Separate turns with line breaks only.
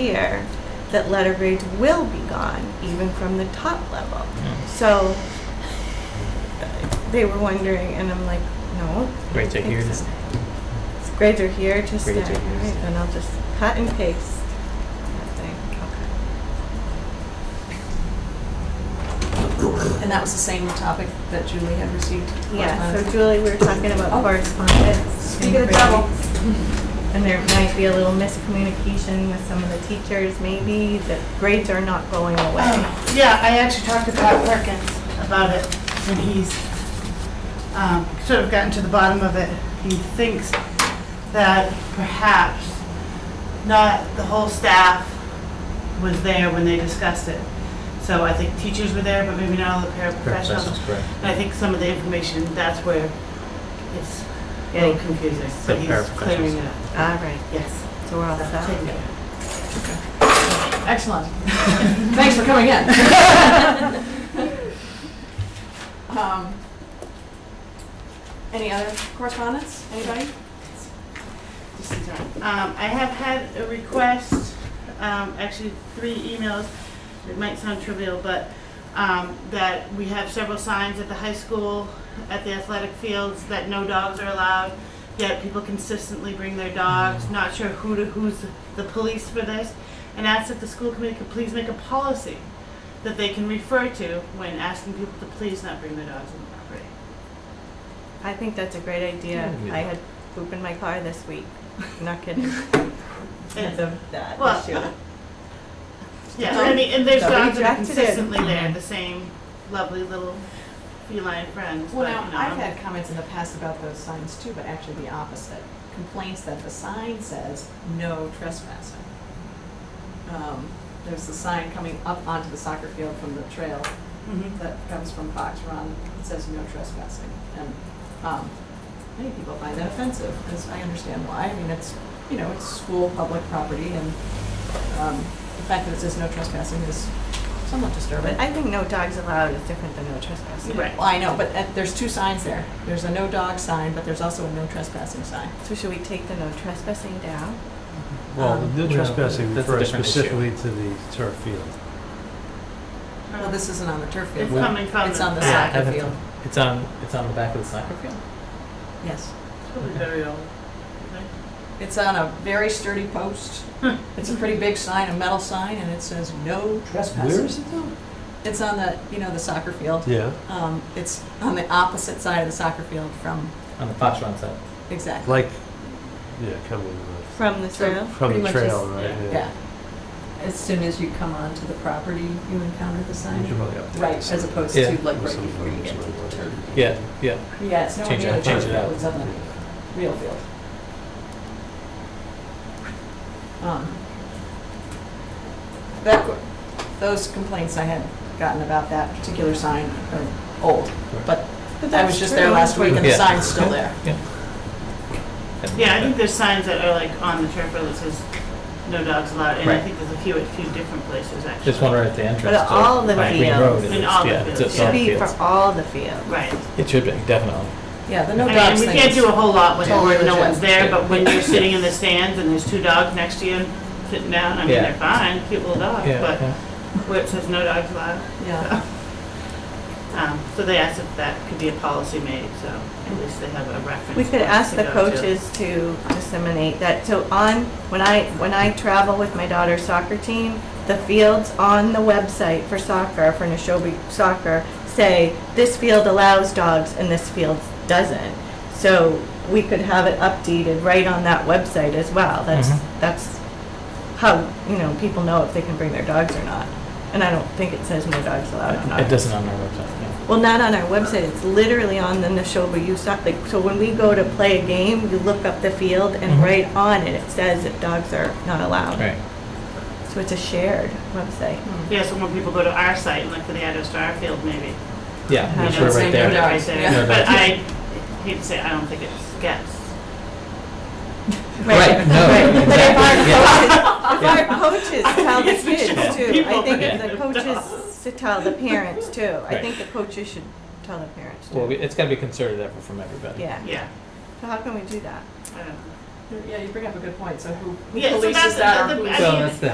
year that letter grades will be gone, even from the top level. So they were wondering, and I'm like, no,
Grades are here to
Exactly. grades are here to stay.
Grades are here to
Right,
stay.
Then I'll just cut and paste. that thing. Okay.
And that was the same topic that Julie had received.
Yeah, so
correspondence.
Julie, we were talking about
Oh.
correspondence.
Speak of the
and grades.
devil.
And there might be a little miscommunication with some of the teachers, maybe, that grades are not going away.
Oh, Yeah, I actually talked to Pat Perkins about it, and he's um, sort of gotten to the bottom of it. He thinks that perhaps not the whole staff was there when they discussed it. So I think teachers were there, but maybe not all the
That's
paraprofessionals.
correct.
And I think some of the information, that's where it's getting confusing,
The
but he's clearing it up.
All right,
Yes.
so we're all
so
set.
taking it.
Excellent. Thanks for coming in. Um, Any other correspondence? Anybody?
Um, I have had a request, um, actually three emails, it might sound trivial, but, um, that we have several signs at the high school, at the athletic fields, that no dogs are allowed, yet people consistently bring their dogs, not sure who to, who's the police for this, and asked if the school committee could please make a policy that they can refer to when asking people to please not bring their dogs on the property.
I think that's a great idea.
Yeah.
I had poop in my car this week. Not kidding. Because
And-
of that
Well,
issue.
Yeah, I mean, and there's
So
dogs that are
attracted it.
consistently there, the same lovely little feline friends.
Well,
but,
now,
you know,
I've had comments in the past about those signs too, but actually the opposite. Complaints that the sign says, no trespassing. Um, There's a sign coming up onto the soccer field from the trail
Mhm.
that comes from Fox Run, it says no trespassing. And um, many people find that offensive, because I understand why. I mean, it's, you know, it's school, public property, and um, the fact that it says no trespassing is somewhat disturbing.
But I think no dogs allowed is different than no trespassing.
Right.
Well, I know, but uh, there's two signs there. There's a no dog sign, but there's also a no trespassing sign.
So should we take the no trespassing down?
Well,
Um,
the
Well,
trespassing
that's a
refers
different issue.
specifically to the turf field.
Well, this isn't on the turf field.
It's coming from
It's on the
back.
side. Soccer field.
It's on, it's on the back of the soccer field?
Yes.
It's probably very old.
It's on a very sturdy post. It's a pretty big sign, a metal sign, and it says no trespassing.
it though?
It's on the, you know, the soccer field.
Yeah,
Um, it's on the opposite side of the soccer field from,
On the Fox Run side.
exactly,
like, yeah, coming uh,
From the trail?
from
Pretty
the
much
trail,
is-
right?
yeah.
yeah.
As soon as you come onto the property, you encounter the
You should
sign.
probably update
Right,
this
as
a bit.
opposed
Yeah.
to like
Or
right
some
before you get to the
language.
turf.
Yeah, yeah.
Yeah, it's nowhere
Change it
near
up,
the
change
turf
it up.
field, it's on the real field. Um, That, those complaints I had gotten about that particular sign are old, but I was just there last week and the
Yeah.
sign's still there.
Yeah, I think there's signs that are like on the turf road that says no dogs allowed, and I
Right.
think there's a few at a few different places actually.
There's one right at the entrance
But
to
all the
Pine Green
fields.
Road. it
In
is,
all the
yeah, it's-
fields,
it's
yeah.
all
Should
the
be for
fields.
all the fields.
Right.
It should be, definitely.
Yeah, the no
I
dogs
mean,
thing
we can't
is-
do a whole lot when
Totally
when no
legit.
one's there, but when you're sitting in the stands and there's two dogs next to you sitting down, I mean,
Yeah.
they're fine, cute little dogs,
Yeah,
Oh, but
yeah.
where it says no dogs allowed.
Yeah,
Um, so they asked if that could be a policy made, so at least they have a reference.
We could
point
ask
to
the
go to.
coaches to disseminate that. So on, when I, when I travel with my daughter's soccer team, the fields on the website for soccer, for Neshoba soccer, say, this field allows dogs and this field doesn't. So we could have it updated right on that website as well. That's,
Mhm.
that's how, you know, people know if they can bring their dogs or not. And I don't think it says no dogs allowed on ours.
It doesn't on our website, yeah.
Well, not on our website, it's literally on the Neshoba U Soc, like, so when we go to play a game, you look up the field and
Mhm.
right on it, it says that dogs are not allowed.
Right.
So it's a shared website.
Yeah, so when people go to our site and look for the address to our field, maybe.
Yeah,
Yeah,
it's
it's
right
like
They're
there.
no
Right
dogs, yeah.
there. But I hate to say, I don't think it gets.
Right, no,
But if our
exactly,
coaches, if our coaches tell the
Yes, we should
kids
help
too, I
people
think
bring
if the
their
coaches
dogs.
to tell the parents too, I
Right.
think the coaches should tell the parents
Well, we-
too.
it's gotta be concerted effort from everybody.
Yeah,
Yeah.
so how can we do that?
I don't know.
yeah, you bring up a good point, so who who
Yeah, so
polices
that's-
that or
the-
who's?
I
Well,
mean,
that's the